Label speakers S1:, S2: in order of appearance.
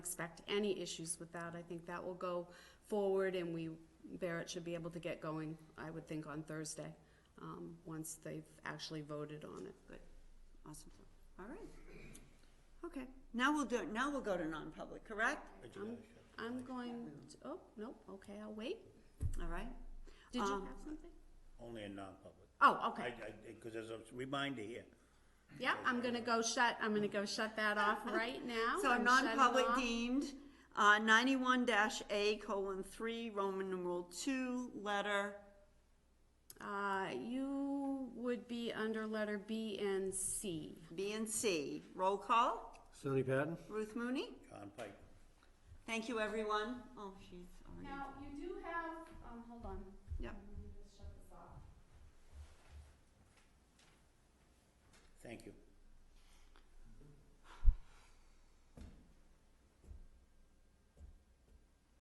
S1: expect any issues with that. I think that will go forward and we, Barrett should be able to get going, I would think, on Thursday, um, once they've actually voted on it.
S2: Good, awesome, all right. Okay, now we'll do, now we'll go to non-public, correct?
S1: I'm, I'm going, to- oh, no, okay, I'll wait.
S2: All right,
S1: Did you have
S2: Um,
S1: something?
S3: Only in non-public.
S1: Oh,
S3: I,
S1: okay.
S3: I, because there's a reminder here.
S1: Yeah, I'm gonna go shut, I'm gonna go shut that off right now.
S2: so
S1: I'm shutting
S2: non-public
S1: off.
S2: deemed, uh, ninety-one dash A colon three, Roman numeral two, letter,
S1: Uh, you would be under letter B and C.
S2: B and C, roll call,
S4: Sonny Patton?
S2: Ruth Mooney?
S3: John Pike,
S2: Thank you, everyone, oh, she's already,
S1: Now, you do have, um, hold on.
S2: Yep.
S1: Let me just shut this off.
S3: thank you.